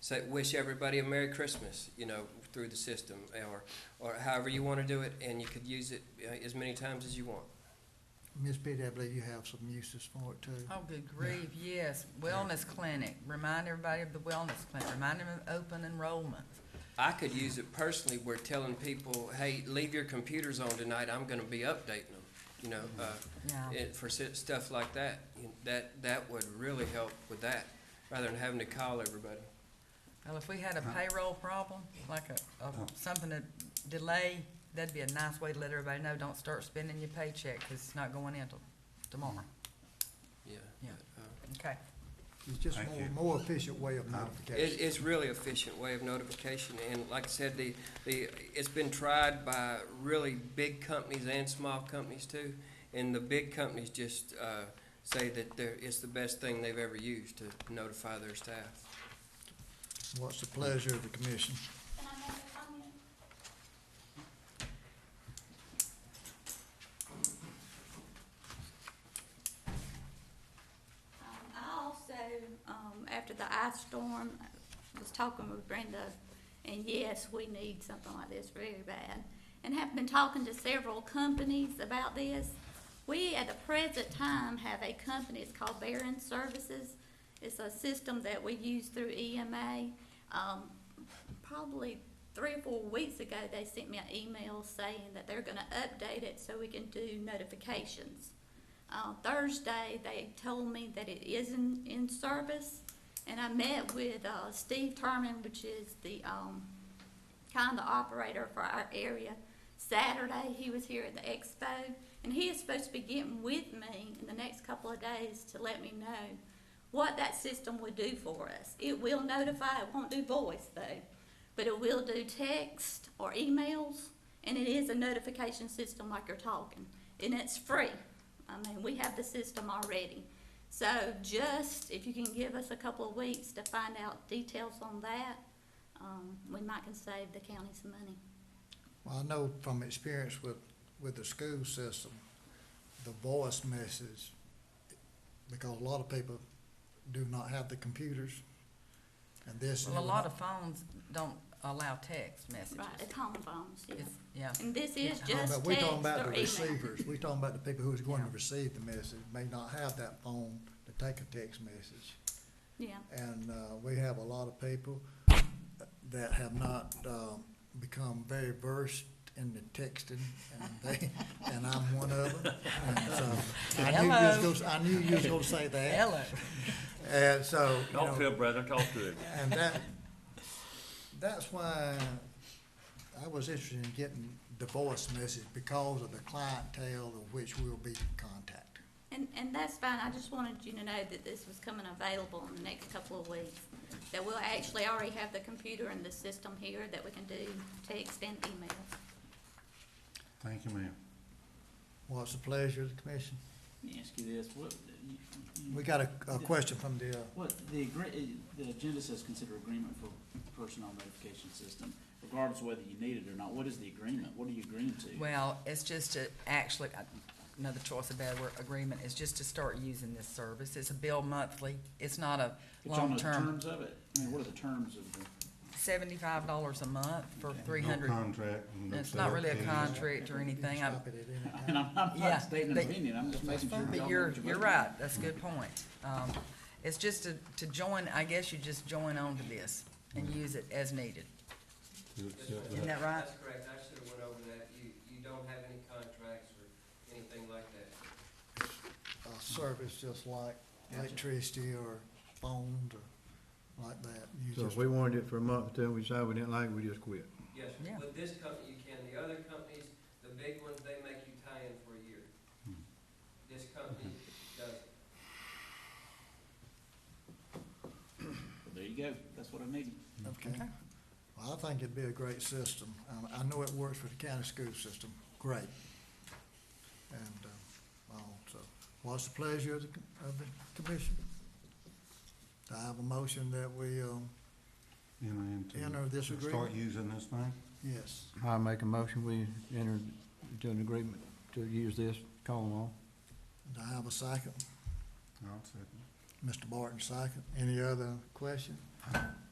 say, wish everybody a Merry Christmas, you know, through the system, or, or however you want to do it, and you could use it uh, as many times as you want. Ms. Biddy, I believe you have some uses for it too. Oh, good grief, yes. Wellness clinic, remind everybody of the wellness clinic, remind them of open enrollment. I could use it personally where telling people, hey, leave your computers on tonight, I'm gonna be updating them, you know, uh, Yeah, it, for si- stuff like that. You- That, that would really help with that, rather than having to call everybody. well, if we had a payroll problem, like a, a, something to delay, that'd be a nice way to let everybody know, don't start spending your paycheck, cause it's not going in till tomorrow. Yeah. Mm-hmm. Yeah. but, uh, Okay, It's just Thank more, you. more efficient way of It, notification. it's really efficient way of notification, and like I said, the, the, it's been tried by really big companies and small companies too. And the big companies just, uh, say that they're, it's the best thing they've ever used to notify their staff. What's the pleasure of the commission? Can I make a comment? Um, I also, um, after the ice storm, was talking with Brenda, and yes, we need something like this very bad. And have been talking to several companies about this. We, at the present time, have a company, it's called Barron Services. It's a system that we use through EMA. Um, probably three or four weeks ago, they sent me an email saying that they're gonna update it so we can do notifications. Uh, Thursday, they told me that it is in, in service, and I met with, uh, Steve Terman, which is the, um, kind of operator for our area. Saturday, he was here at the expo, and he is supposed to be getting with me in the next couple of days to let me know what that system would do for us. It will notify, it won't do voice though, but it will do text or emails, and it is a notification system like you're talking, and it's free. I mean, we have the system already. So just, if you can give us a couple of weeks to find out details on that, um, we might can save the county some money. Well, I know from experience with, with the school system, the voice message, because a lot of people do not have the computers. And this. well, a lot of phones don't allow text messages. Right, it's home phones, yeah. It's, yeah, And this is But Yeah, just we're text talking about or the email. receivers, we're talking about the people who's going to Yeah. receive the message, may not have that phone to take a text message. Yeah, And uh, we have a lot of people that have not um, become very versed in the texting, and they, and I'm one of them. And so I knew you was Hello. gonna- I knew you was gonna say that. hello, And so, you Talk to know, him, brother, talk to him. and that, that's why I was interested in getting the voice message because of the clientele of which we'll be contacted. And, and that's fine, I just wanted you to know that this was coming available in the next couple of weeks. That we'll actually already have the computer and the system here that we can do text and email. Thank you, ma'am. What's the pleasure of the commission? Let me ask you this, what, you- you- We got a, a question from the, uh, what, the agree, the agenda says consider agreement for personnel notification system, regardless of whether you need it or not, what is the agreement, what are you agreeing to? well, it's just to actually, I- another choice of bad word, agreement, is just to start using this service. It's a bill monthly, it's not a It's on the long-term terms of it, I mean, what are the terms of the, seventy-five dollars a month for three hundred. No contract. no It's not really a sales. contract or anything, I, Stop it at any time. I mean, I'm I'm Yeah, not stating an but- opinion, I'm just making sure y'all know but what you're, voting you're on. right, that's a good point. Um, it's just to, to join, I guess you just join on to this and use it as needed. You accept Isn't that? that right? That's correct, I should have went over that, you, you don't have any contracts or anything like that. a service just like electricity or phones or like that. You So just- if we wanted it for a month, then we decided we didn't like it, we just quit. Yes, Yeah. with this company you can, the other companies, the big ones, they make you tie in for a year. Hmm. This company does, Well, There you go, that's what I needed. Okay. Well, I think it'd be a great system. Um, I know it works for the county school system, great. And, uh, well, so, what's the pleasure of the, com- of the commission? Do I have a motion that we, um, Enter into- Enter this Start agreement. using this thing? yes, I make a motion, we enter into an agreement to use this, call them all. do I have a second? I'll second. Mr. Barton, second. Any other question?